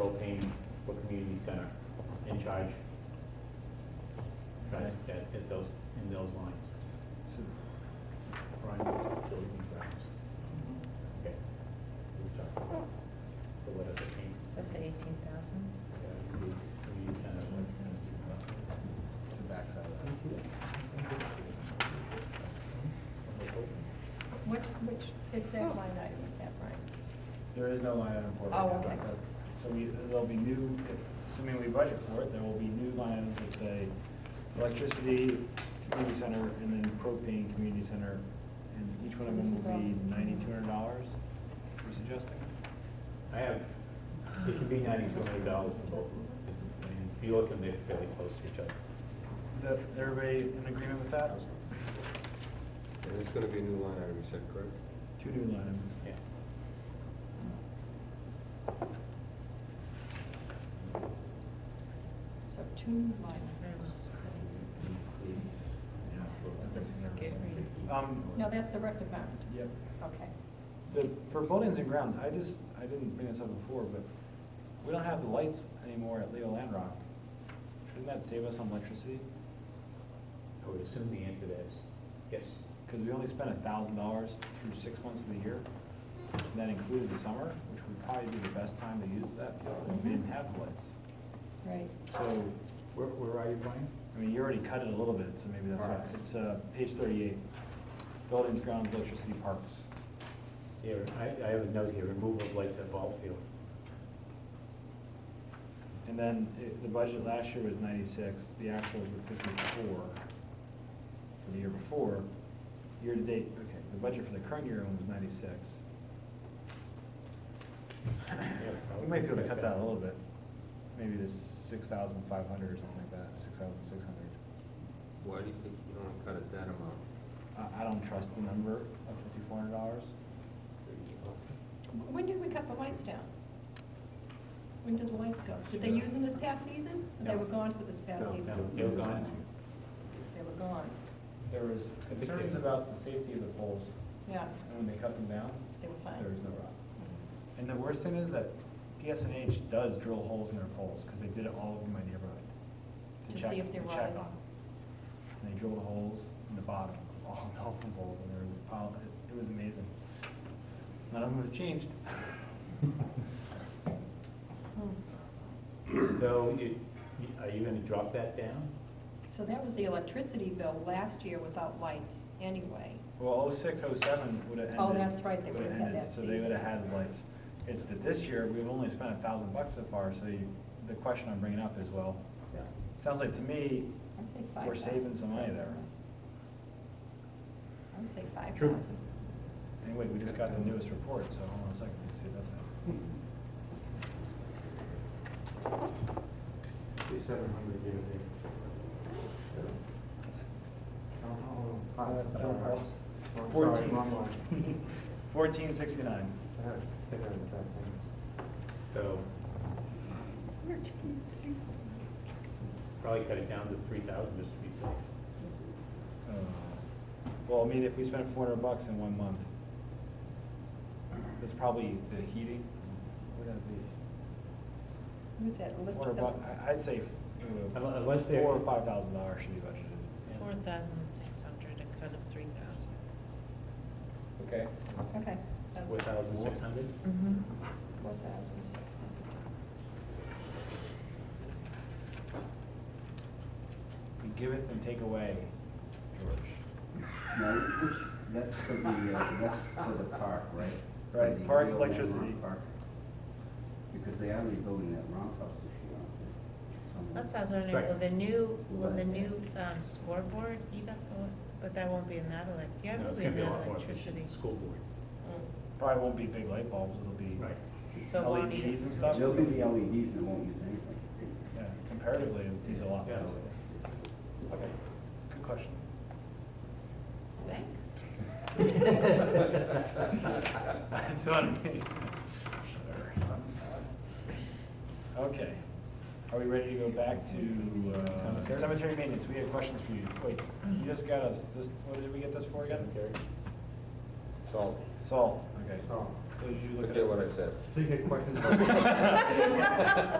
propane for community center in charge. Try to get, get those, in those lines. Prime building grounds. Okay. We talked about The letter that came. Is that the eighteen thousand? uh, commu- community center. It's the backside of that. What, which exact line item is that, Brian? There is no line item for it. Oh, right now. okay. So we, there'll be new, if- assuming we budget for it, there will be new line items that say electricity, community center, and then propane, community center. And each one of So them this will be is all- ninety-two hundred dollars, we're suggesting. I have, it could be ninety-two hundred dollars for both. I mean, if you look, and they're fairly close to each other. Is that, everybody in agreement with that? And it's gonna be a new line item, you said, correct? Two new line items. Yeah. So two line items. Um, No, that's the rec department. yep. Okay. The, for buildings and grounds, I just, I didn't bring this up before, but we don't have the lights anymore at Leo Land Rock. Shouldn't that save us on electricity? I would assume the answer to that is yes. Because we only spent a thousand dollars through six months of the year. And that included the summer, which would probably be the best time to use that field, and we didn't have the lights. Right. So, Where, where are you playing? I mean, you already cut it a little bit, so maybe that's why. Parks. It's, uh, page thirty-eight, buildings, grounds, electricity, parks. Here, I, I have a note here, removal of lights at ball field. And then it- the budget last year was ninety-six, the actuals were fifty-four for the year before. Year-to-date, okay, the budget for the current year was ninety-six. We might be able to cut that a little bit, maybe to six thousand five hundred or something like that, six thousand six hundred. Why do you think you don't wanna cut it that amount? I, I don't trust the number of fifty-four hundred dollars. When did we cut the lights down? When did the lights go? Did they use them this past season? Or They No. were gone for this past No, season? no, they were gone. They were gone. There was I think concerns they- about the safety of the poles, Yeah, and when they cut them down, they were fine. no rock. And the worst thing is that PSNH does drill holes in their poles, because they did it all over my neighborhood. To check- see if they're to check rotted. on 'em. And they drilled holes in the bottom, of all the telephone poles, and they were piled, it- it was amazing. None of them have changed. Hmm. So you, you- are you gonna drop that down? So that was the electricity bill last year without lights anyway. Well, oh six, oh seven would have ended. Oh, that's right, they would've would've had ended, that So they would have season. had lights. It's that this year, we've only spent a thousand bucks so far, so you, the question I'm bringing up is, well, Yeah. sounds like to me, I'd say five thousand. we're saving some money there. I would say five True. thousand. Anyway, we just got the newest report, so hold on a second, let's see about that. Thirty-seven hundred, yeah, Fourteen. Fourteen sixty-nine. So. Probably cut it down to three thousand just to be safe. Uh, Well, I mean, if we spent four hundred bucks in one month, that's probably the heating. Would that be? Who's that? Four hundred bucks, I'd say uh, Unle- unless they're- Four or five thousand dollars should be budgeted. Four thousand six hundred, a cut of three thousand. Okay. Okay. sounds Four good. thousand six hundred? Four thousand six hundred. We giveth and take away, George. No, which, that's for the, uh, that's for the park, right? Right, For the parks, Yale Landmark electricity. Park. Because they are rebuilding that roundhouse this year, aren't they? Somewhere. That's what I was wondering, Right. will the new, will the new um, scoreboard even, oh, but that won't be in that elec, yeah, No, it'll it's be gonna be in a that lot more efficient. electricity. Mm. School board. Probably won't be big light bulbs, it'll be. Right. So it won't E need LEDs it. and stuff? They'll be the LEDs and won't use anything. Yeah, comparatively, these are a lot Yeah. less. Okay, good question. Thanks. That's on me. Okay, are we ready to go back to uh, Cemetery? cemetery maintenance? We had questions for you. Wait, you just got us, this, what did we get this for again? Cemetery. Salt. Salt, okay. Salt. So you look at. Forget what I said. So you got questions about?